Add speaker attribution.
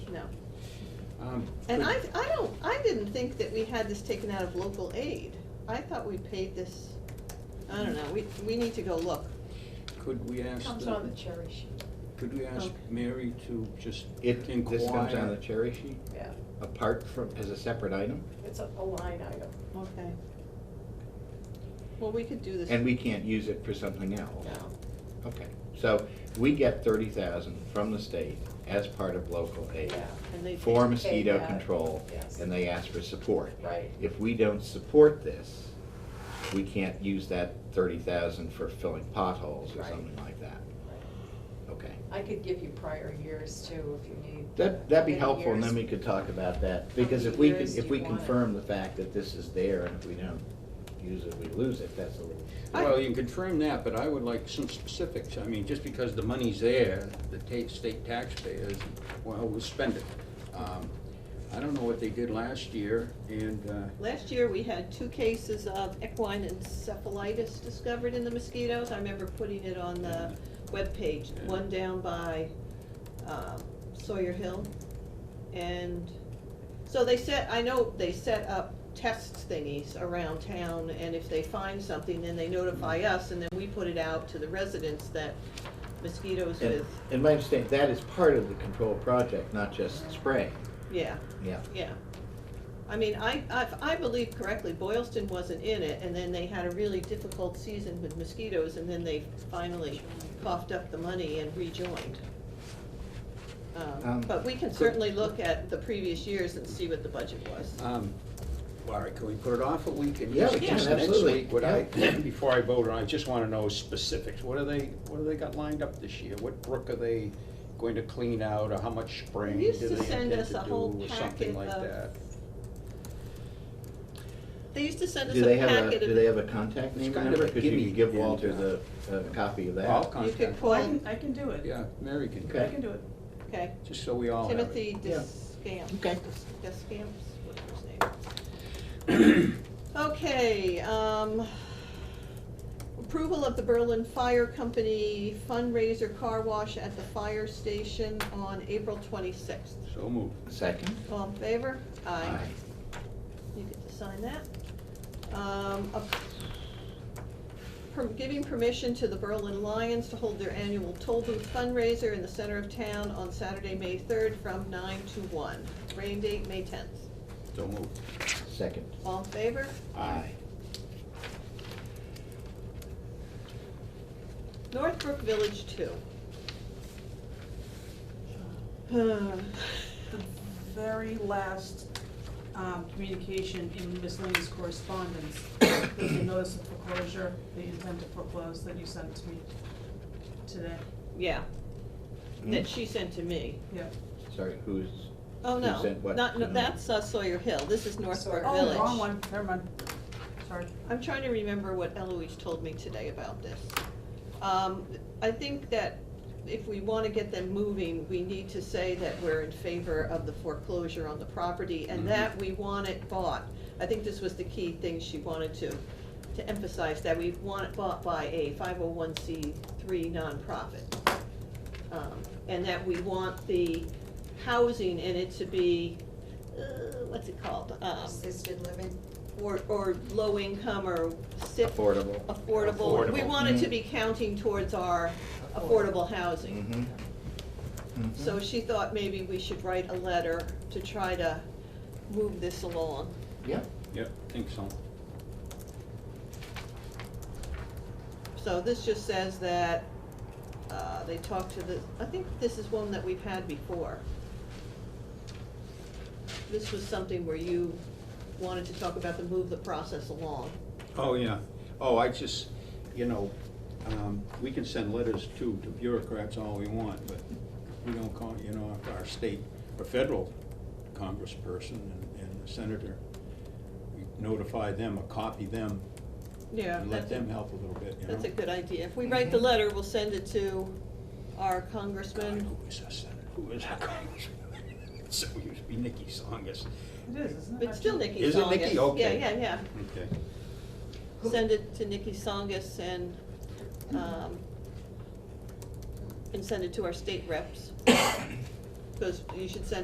Speaker 1: Um,
Speaker 2: And
Speaker 1: could-
Speaker 2: I, I don't, I didn't think that we had this taken out of local aid. I thought we paid this, I don't know, we, we need to go look.
Speaker 1: Could we ask,
Speaker 3: Comes
Speaker 1: the-
Speaker 3: on the cherry sheet.
Speaker 1: could we ask
Speaker 2: Okay.
Speaker 1: Mary to just
Speaker 4: It,
Speaker 1: inquire?
Speaker 4: this comes on the cherry sheet,
Speaker 3: Yeah,
Speaker 4: apart from, as a separate item,
Speaker 3: it's a, a line item.
Speaker 2: Okay. Well, we could do this.
Speaker 4: and we can't use it for something else.
Speaker 3: No,
Speaker 4: Okay, so we get thirty thousand from the state as part of local aid
Speaker 3: yeah,
Speaker 2: and they-
Speaker 4: for mosquito
Speaker 3: that,
Speaker 4: control,
Speaker 3: yes.
Speaker 4: and they ask for support.
Speaker 3: right.
Speaker 4: If we don't support this, we can't use that thirty thousand for filling potholes or
Speaker 3: Right.
Speaker 4: something like that.
Speaker 3: right.
Speaker 4: Okay,
Speaker 3: I could give you prior years too, if you need.
Speaker 4: that, that'd be
Speaker 3: How many
Speaker 4: helpful, and then
Speaker 3: years?
Speaker 4: we could talk about that, because if
Speaker 3: many
Speaker 4: we can,
Speaker 3: years do
Speaker 4: if we
Speaker 3: you want it?
Speaker 4: confirm the fact that this is there, and if we don't use it, we lose it, that's a little.
Speaker 2: I-
Speaker 1: Well, you can confirm that, but I would like some specifics. I mean, just because the money's there, the ta- state taxpayers, well, we'll spend it. Um, I don't know what they did last year, and, uh,
Speaker 2: Last year, we had two cases of equine encephalitis discovered in the mosquitoes. I remember putting it on the webpage,
Speaker 1: Yeah.
Speaker 2: one down by um, Sawyer Hill. And so they set, I know they set up test thingies around town, and if they find something, then they notify us, and then we put it out to the residents that mosquitoes
Speaker 4: And,
Speaker 2: with,
Speaker 4: and my understanding, that is part of the control project, not just spray.
Speaker 2: yeah.
Speaker 4: Yeah.
Speaker 2: Yeah. I mean, I, I, if I believe correctly, Boylston wasn't in it, and then they had a really difficult season with mosquitoes, and then they finally coughed up the money and rejoined. Um,
Speaker 4: Um,
Speaker 2: But we can certainly look at the previous years and see what the budget was.
Speaker 1: um, Larry, can we put it off a week and
Speaker 4: Yeah,
Speaker 1: just
Speaker 4: we
Speaker 1: just
Speaker 4: can,
Speaker 1: next
Speaker 4: absolutely,
Speaker 1: week? Would I, before I vote, on it, I just wanna know specifics. What are they, what do they got lined up this year? What brook are they going to clean out, or how much spraying
Speaker 2: They
Speaker 1: do
Speaker 2: used
Speaker 1: they
Speaker 2: to send
Speaker 1: intend
Speaker 2: us
Speaker 1: to
Speaker 2: a
Speaker 1: do,
Speaker 2: whole
Speaker 1: or
Speaker 2: packet
Speaker 1: something like
Speaker 2: of-
Speaker 1: that?
Speaker 2: They used to send us
Speaker 4: Do
Speaker 2: a
Speaker 4: they have
Speaker 2: packet
Speaker 4: a,
Speaker 2: of.
Speaker 4: do they have a contact
Speaker 1: It's
Speaker 4: name
Speaker 1: kind
Speaker 4: number?
Speaker 1: of a
Speaker 4: Because you
Speaker 1: gimme
Speaker 4: could give
Speaker 1: in,
Speaker 4: Walter
Speaker 1: uh,
Speaker 4: the, a copy of
Speaker 1: I'll
Speaker 4: that.
Speaker 2: You could
Speaker 1: contact,
Speaker 3: Well, I
Speaker 2: call,
Speaker 3: can, I can do it.
Speaker 1: yeah, Mary can,
Speaker 4: Okay.
Speaker 3: I can do it.
Speaker 2: okay,
Speaker 1: just so we all have it.
Speaker 2: Timothy
Speaker 4: Yeah.
Speaker 2: Descamps.
Speaker 4: Okay.
Speaker 2: Descamps, whatever his name. Okay, um, approval of the Berlin Fire Company fundraiser car wash at the fire station on April twenty-sixth.
Speaker 1: So moved.
Speaker 4: Second?
Speaker 2: All in favor? You get to sign that. Um, a- per- giving permission to the Berlin Lions to hold their annual toll booth fundraiser in the center of town on Saturday, May third, from nine to one. Rain date, May tenth.
Speaker 1: So moved.
Speaker 4: Aye. Second.
Speaker 2: All in favor?
Speaker 4: Aye.
Speaker 2: Northbrook Village two.
Speaker 5: The very last um, communication in Ms. Lane's correspondence was the notice of foreclosure, the intent to foreclose that you sent to me today.
Speaker 2: Yeah, that
Speaker 4: Hmm?
Speaker 2: she sent to me.
Speaker 5: Yep.
Speaker 4: Sorry, who's,
Speaker 2: Oh,
Speaker 4: Who
Speaker 2: no,
Speaker 4: sent what
Speaker 2: not,
Speaker 4: to
Speaker 2: no,
Speaker 4: me?
Speaker 2: that's uh, Sawyer Hill, this is Northbrook
Speaker 5: Oh,
Speaker 2: Village.
Speaker 5: wrong one, never mind. Sorry.
Speaker 2: I'm trying to remember what Eloise told me today about this. Um, I think that if we wanna get them moving, we need to say that we're in favor of the foreclosure on the property
Speaker 1: Mhm.
Speaker 2: and that we want it bought. I think this was the key thing she wanted to, to emphasize, that we want it bought by a five oh one C three nonprofit. Um, and that we want the housing in it to be, uh, what's it called? Um,
Speaker 3: Assisted living.
Speaker 2: or, or low income or sit.
Speaker 4: Affordable.
Speaker 2: Affordable. We
Speaker 1: Affordable.
Speaker 2: want it to
Speaker 4: Mhm.
Speaker 2: be counting towards our affordable housing.
Speaker 4: mm-hmm.
Speaker 2: So she thought maybe we should write a letter to try to move this along.
Speaker 4: Yep,
Speaker 1: Yep, think so.
Speaker 2: So this just says that, uh, they talked to the, I think this is one that we've had before. This was something where you wanted to talk about to move the process along.
Speaker 1: Oh, yeah. Oh, I just, you know, um, we can send letters to, to bureaucrats all we want, but we don't call, you know, if our state or federal congressperson and, and senator, we notify them or copy them
Speaker 2: Yeah.
Speaker 1: and let them help a little bit, you know?
Speaker 2: That's a good idea. If we write the letter, we'll send it to our
Speaker 1: God,
Speaker 2: congressman.
Speaker 1: Who is our senator? Who is our congressman? So it used to be Nikki Songus.
Speaker 5: It is, isn't it?
Speaker 2: It's still Nikki Songus.
Speaker 1: Is it Nikki? Okay.
Speaker 2: Yeah, yeah,
Speaker 1: Okay.
Speaker 2: yeah. Send it to Nikki Songus and, um, and send it to our state reps. Because you should send